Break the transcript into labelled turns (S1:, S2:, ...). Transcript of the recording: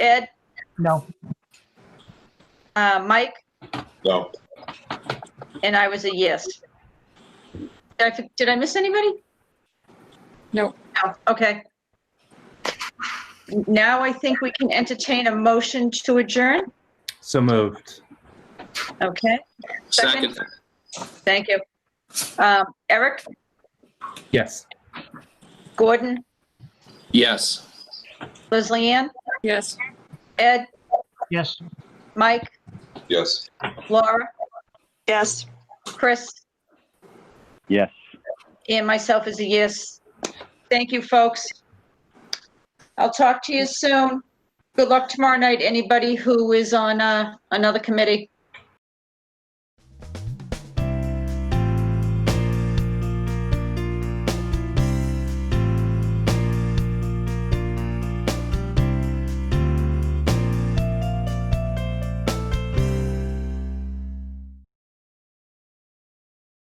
S1: Ed,
S2: No,
S1: uh, Mike,
S3: No,
S1: and I was a yes. Did I, did I miss anybody?
S4: No.
S1: No, okay. Now I think we can entertain a motion to adjourn.
S5: So moved.
S1: Okay, Second.
S3: second,
S1: thank you. Um, Eric,
S5: Yes.
S1: Gordon,
S3: yes.
S1: Leslie Ann,
S4: Yes.
S1: Ed,
S2: yes.
S1: Mike,
S3: Yes.
S1: Laura,
S4: Yes.
S1: Chris,
S6: Yes.
S1: and myself is a yes. Thank you, folks. I'll talk to you soon. Good luck tomorrow night, anybody who is on uh, another committee.